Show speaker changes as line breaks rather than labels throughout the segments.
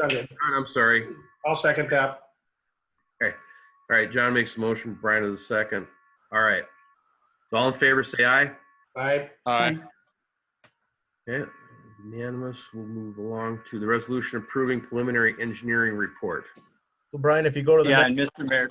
Second.
John, I'm sorry. All
I'll second that.
right, John makes a motion, Brian is the second. All right. So All in favor, say aye.
Aye.
Aye.
Okay, unanimous. We'll move along to the resolution approving preliminary engineering report.
So Brian, if you go to the
Yeah,
next,
and Mr. Mayor,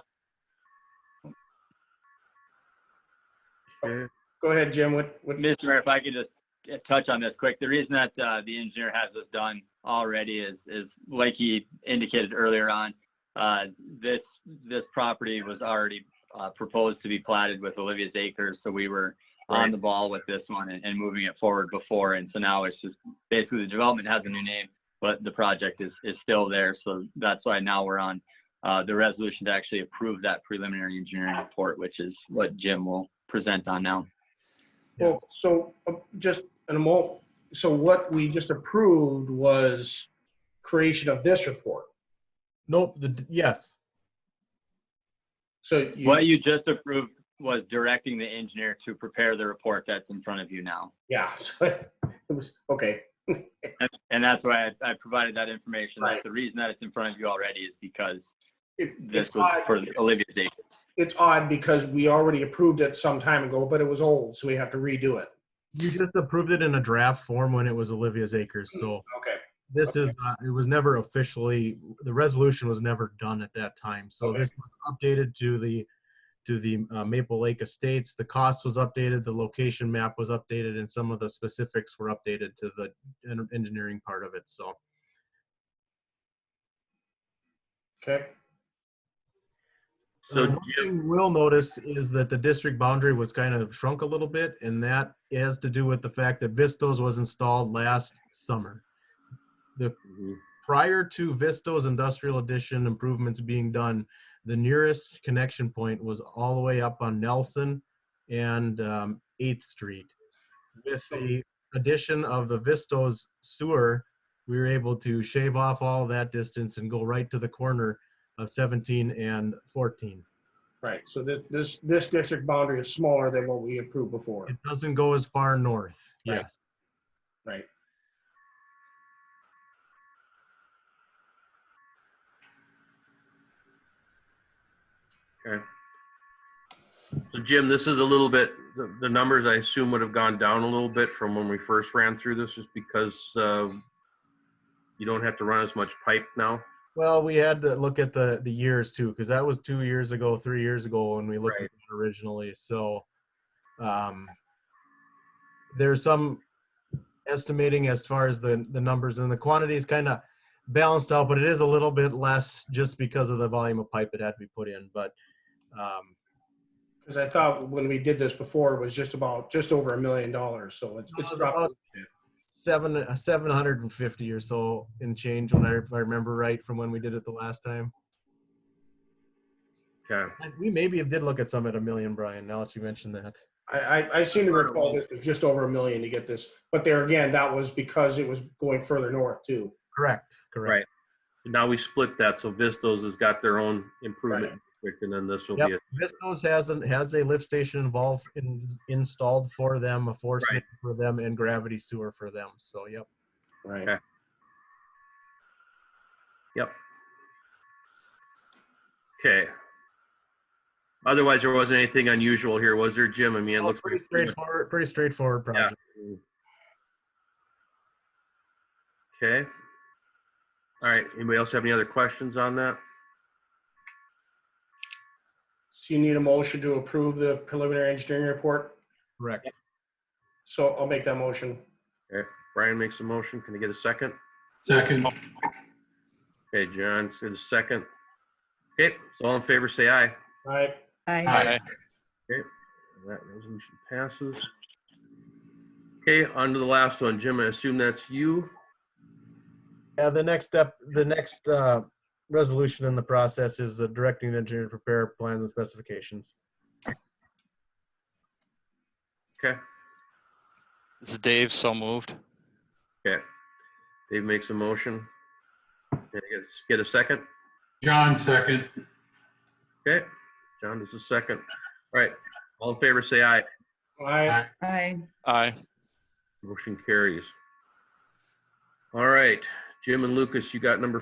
Okay,
Go ahead, Jim. What, what,
Mr. Mayor, if I could just uh, touch on this quick. The reason that uh, the engineer has this done already is, is like he indicated earlier on, uh, this, this property was already uh, proposed to be platted with Olivia's Acres, so we were on
Right.
the ball with this one and, and moving it forward before. And so now it's just, basically the development has a new name, but the project is, is still there. So that's why now we're on uh, the resolution to actually approve that preliminary engineering report, which is what Jim will present on now.
well, so uh, just in a moment, so what we just approved was creation of this report.
nope, the, yes,
So you,
What you just approved was directing the engineer to prepare the report that's in front of you now.
yeah, so it was, okay,
And- And that's why I, I provided that information.
Right.
That's the reason that it's in front of you already is because
It-
this
it's
was
odd,
for Olivia's date.
it's odd because we already approved it some time ago, but it was old, so we have to redo it.
you just approved it in a draft form when it was Olivia's Acres, so
Okay,
this is, not- it was never officially, the resolution was never done at that time, so
Okay.
this was updated to the, to the uh, Maple Lake Estates, the cost was updated, the location map was updated, and some of the specifics were updated to the en- engineering part of it, so.
okay,
So
Um, one
Jim,
thing we'll notice is that the district boundary was kind of shrunk a little bit, and that has to do with the fact that Vistos was installed last summer. Prior to Vistos Industrial Addition improvements being done, the nearest connection point was all the way up on Nelson and um, 8th Street. With the addition of the Vistos sewer, we were able to shave off all that distance and go right to the corner of 17 and 14.
right. So this, this, this district boundary is smaller than what we approved before.
It doesn't go as far north.
Right.
Yes.
Right.
so Jim, this is a little bit, the, the numbers I assume would have gone down a little bit from when we first ran through this just because uh, you don't have to run as much pipe now.
Well, we had to look at the the years too, because that was two years ago, three years ago when we looked
Right.
at it originally. So, um, there's some estimating as far as the the numbers and the quantities kind of balanced out, but it is a little bit less just because of the volume of pipe it had to be put in. But um,
Because I thought when we did this before, it was just about, just over a million dollars, so it's, it's dropped.
seven seven hundred and fifty or so in change when I, if I remember right from when we did it the last time.
Okay,
Like, We maybe did look at some at a million, Brian, now that you mentioned that.
I, I, I seem to recall this was just over a million to get this, but there again, that was because it was going further north too.
Correct, correct.
now we split that, so Vistos has got their own improvement district and then this will be,
Yep, Vistos has, an- has a lift station involved, in- installed for them, a force
Right.
main for them, and gravity sewer for them, so yep.
Right.
Okay. it. okay. Otherwise, there wasn't anything unusual here, was there, Jim? I mean, it
All
looks.
Oh, Pretty
like-
straightforward, pretty straightforward project.
Okay. All right, anybody else have any other questions on that?
So you need a motion to approve the preliminary engineering report,
Correct.
so I'll make that motion.
Brian makes a motion, can I get a second?
Second.
Okay, John, say the second. Okay, so all in favor, say aye.
All right,
Aye.
Aye.
And That resolution passes. Okay, on to the last one, Jim, I assume that's you.
Yeah, the next step, the next, uh, resolution in the process is the directing the engineer to prepare plans and specifications.
Okay,
This is Dave, so moved.
okay. Dave makes a motion. Can I get- Get a second?
John, second.
Okay, John does a second. All right, all in favor, say aye.
all right,
Aye.
Aye.
Aye.
Motion carries. All right, Jim and Lucas, you got number